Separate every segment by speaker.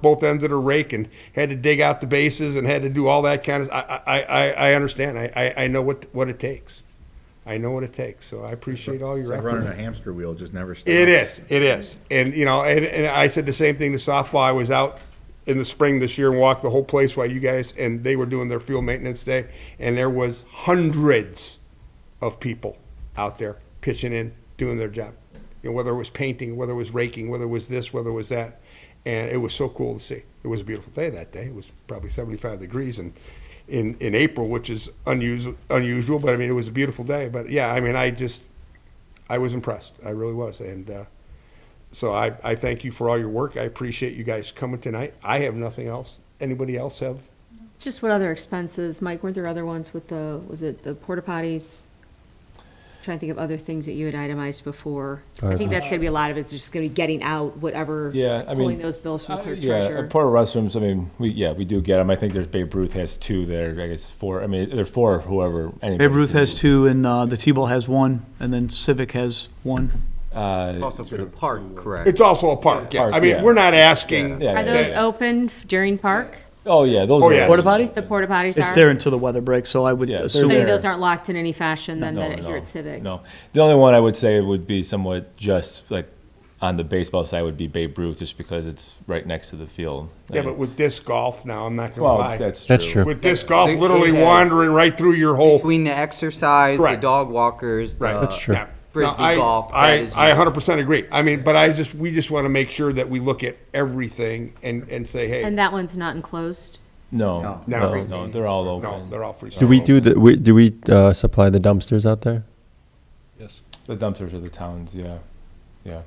Speaker 1: both ends of the rake and had to dig out the bases and had to do all that kind of. I I, I, I understand. I, I, I know what what it takes. I know what it takes. So I appreciate all your
Speaker 2: It's like
Speaker 1: effort.
Speaker 2: running a hamster wheel, it just never stops.
Speaker 1: It is. It is. And you know, and, and I said the same thing to softball. I was out in the spring this year and walked the whole place while you guys and they were doing their field maintenance day, and there was hundreds of people out there pitching in, doing their job. You know, whether it was painting, whether it was raking, whether it was this, whether it was that, and it was so cool to see. It was a beautiful day that day. It was probably 75 degrees and. In, in April, which is unusual, unusual, but I mean it was a beautiful day. But yeah, I mean I just I was impressed. I really was. And uh, so I, I thank you for all your work. I appreciate you guys coming tonight. I have nothing else. Anybody else have?
Speaker 3: Just what other expenses, Mike, weren't there other ones with the, was it the porta potties? Trying to think of other things that you had itemized before. I think that's gonna be a lot of it's just gonna be getting out whatever.
Speaker 4: Yeah, I mean.
Speaker 3: Pulling those bills from
Speaker 4: uh,
Speaker 3: clerk
Speaker 4: Yeah,
Speaker 3: treasurer.
Speaker 4: porta restrooms, I mean, we, yeah, we do get them. I think there's Babe Ruth has two there, I guess four, I mean, there are four, whoever. anybody
Speaker 5: Babe Ruth
Speaker 4: can-
Speaker 5: has two, and uh, the T-ball has one, and then Civic has one.
Speaker 4: Uh,
Speaker 6: Also for the park, correct?
Speaker 1: It's also a park. Yeah.
Speaker 4: Park,
Speaker 1: I mean,
Speaker 4: yeah.
Speaker 1: we're not asking.
Speaker 4: Yeah.
Speaker 3: Are those open f- during park?
Speaker 4: oh, yeah, those
Speaker 1: Oh,
Speaker 4: are.
Speaker 1: yeah.
Speaker 5: Porta potty?
Speaker 3: The porta potties are?
Speaker 5: It's there until the weather breaks, so I would
Speaker 4: Yeah, they're
Speaker 3: So
Speaker 5: assume.
Speaker 3: Any of
Speaker 4: there.
Speaker 3: those aren't locked in any fashion then
Speaker 4: No,
Speaker 3: that here
Speaker 4: no,
Speaker 3: at Civic?
Speaker 4: No, the only one I would say would be somewhat just like on the baseball side would be Babe Ruth, just because it's right next to the field.
Speaker 1: Yeah, but with disc golf now, I'm not going to
Speaker 4: Well,
Speaker 1: lie.
Speaker 4: that's
Speaker 7: That's
Speaker 4: true.
Speaker 7: true.
Speaker 1: with disc golf
Speaker 6: It- it
Speaker 1: literally
Speaker 6: has-
Speaker 1: wandering right through your whole.
Speaker 6: Between the exercise, the
Speaker 1: Correct.
Speaker 6: dog walkers, the.
Speaker 1: Right.
Speaker 7: That's true.
Speaker 1: Yeah.
Speaker 6: Frisbee
Speaker 1: No, I,
Speaker 6: golf, that
Speaker 1: I,
Speaker 6: is-
Speaker 1: I 100% agree. I mean, but I just, we just want to make sure that we look at everything and, and say, hey,
Speaker 3: And that one's not enclosed?
Speaker 4: No,
Speaker 1: No.
Speaker 4: no,
Speaker 1: No.
Speaker 4: no, they're all
Speaker 1: no,
Speaker 4: open.
Speaker 1: they're all free.
Speaker 7: Do we do the, we, do we, uh, supply the dumpsters out there?
Speaker 4: The dumpsters are the towns, yeah, yeah.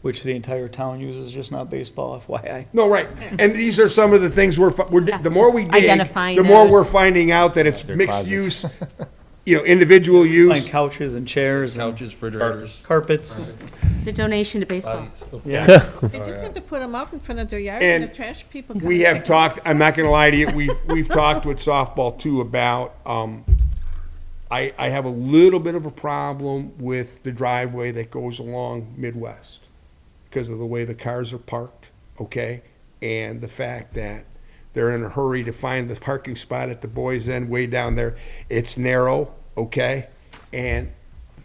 Speaker 5: Which the entire town uses, just not baseball, FYI.
Speaker 1: No, right. And these are some of the things we're, fi- we're, di- the more we dig,
Speaker 3: Identifying
Speaker 1: the more
Speaker 3: those.
Speaker 1: we're finding out that it's
Speaker 4: Their
Speaker 1: mixed
Speaker 4: closets.
Speaker 1: use, you know, individual
Speaker 5: Find
Speaker 1: use.
Speaker 5: couches and chairs and
Speaker 8: Couches, refrigerators.
Speaker 5: carpets.
Speaker 3: It's a donation to baseball.
Speaker 5: Yeah.
Speaker 9: They just have to put them up in front of their yard
Speaker 1: And
Speaker 9: and the trash people. come
Speaker 1: We
Speaker 9: and
Speaker 1: have
Speaker 9: pick 'em
Speaker 1: talked, I'm not gonna lie to you, we've, we've talked with softball too about, um, I, I have a little bit of a problem with the driveway that goes along Midwest because of the way the cars are parked, okay? And the fact that they're in a hurry to find the parking spot at the boys' end way down there. It's narrow, okay? And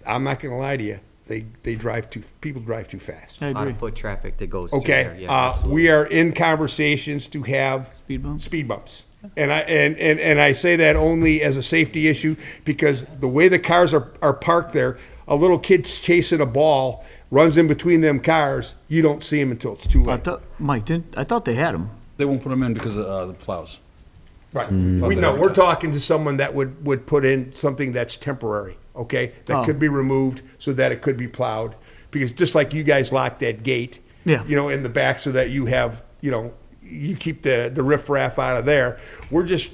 Speaker 1: I'm not gonna lie to you, they, they drive too, people drive too fast.
Speaker 5: I
Speaker 6: On
Speaker 5: agree.
Speaker 6: foot traffic that goes through there.
Speaker 1: Okay,
Speaker 6: yeah,
Speaker 1: uh,
Speaker 6: absolutely.
Speaker 1: we are in conversations to have.
Speaker 5: Speed bumps?
Speaker 1: Speed bumps. And I, and, and, and I say that only as a safety issue because the way the cars are, are parked there, a little kid's chasing a ball, runs in between them cars, you don't see him until it's too
Speaker 5: I
Speaker 1: late.
Speaker 5: thought, Mike, didn't, I thought they had them.
Speaker 8: They won't put them in because of uh, the plows.
Speaker 1: Right. We know, we're talking to someone that would, would put in something that's temporary, okay? That
Speaker 5: Oh.
Speaker 1: could be removed so that it could be plowed. Because just like you guys locked that gate,
Speaker 5: Yeah.
Speaker 1: you know, in the back so that you have, you know, you keep the, the riffraff out of there. We're just,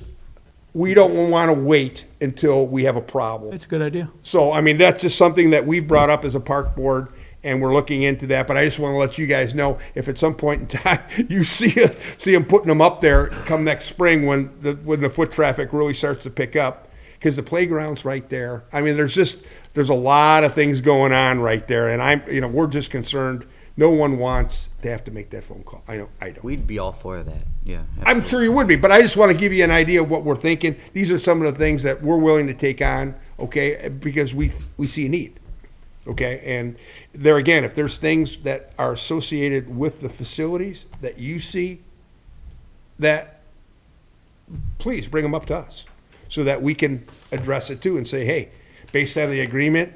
Speaker 1: we don't want to wait until we have a problem.
Speaker 5: That's a good idea.
Speaker 1: So, I mean, that's just something that we've brought up as a park board, and we're looking into that, but I just wanna let you guys know, if at some point in time, you see, see them putting them up there come next spring when the, when the foot traffic really starts to pick up, cause the playground's right there. I mean, there's just, there's a lot of things going on right there, and I'm, you know, we're just concerned, no one wants to have to make that phone call. I know, I don't.
Speaker 6: We'd be all for that, yeah.
Speaker 1: I'm sure you would be, but I just want to give you an idea of what we're thinking. These are some of the things that we're willing to take on, okay, because we we see a need. Okay, and there again, if there's things that are associated with the facilities that you see that please bring them up to us so that we can address it too and say, hey, based on the agreement,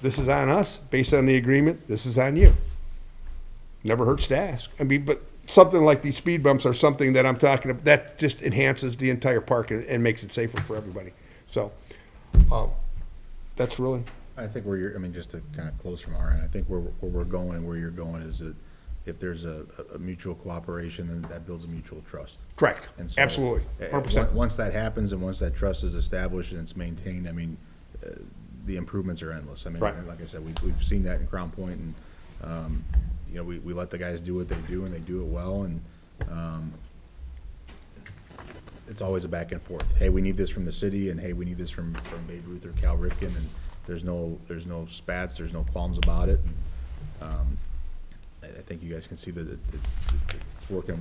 Speaker 1: this is on us. Based on the agreement, this is on you. Never hurts to ask. I mean, but something like these speed bumps are something that I'm talking about, that just enhances the entire park and, and makes it safer for everybody. So, um, that's really,
Speaker 2: I think where you're, I mean, just to kind of close from our end, I think where, where we're going and where you're going is that if there's a, a- a mutual cooperation, then that builds a mutual trust.
Speaker 1: correct.
Speaker 2: And so,
Speaker 1: Absolutely.
Speaker 2: uh,
Speaker 1: Hundred percent.
Speaker 2: on- Once that happens and once that trust is established and it's maintained, I mean, uh, the improvements are endless. I mean,
Speaker 1: Right.
Speaker 2: and like I said, we've, we've seen that in Crown Point and, um, you know, we, we let the guys do what they do and they do it well and, um, it's always a back and forth. Hey, we need this from the city and hey, we need this from, from Babe Ruth or Cal Ripken and there's no, there's no spats, there's no qualms about it. And, Um, I, I think you guys can see that it, it- it's working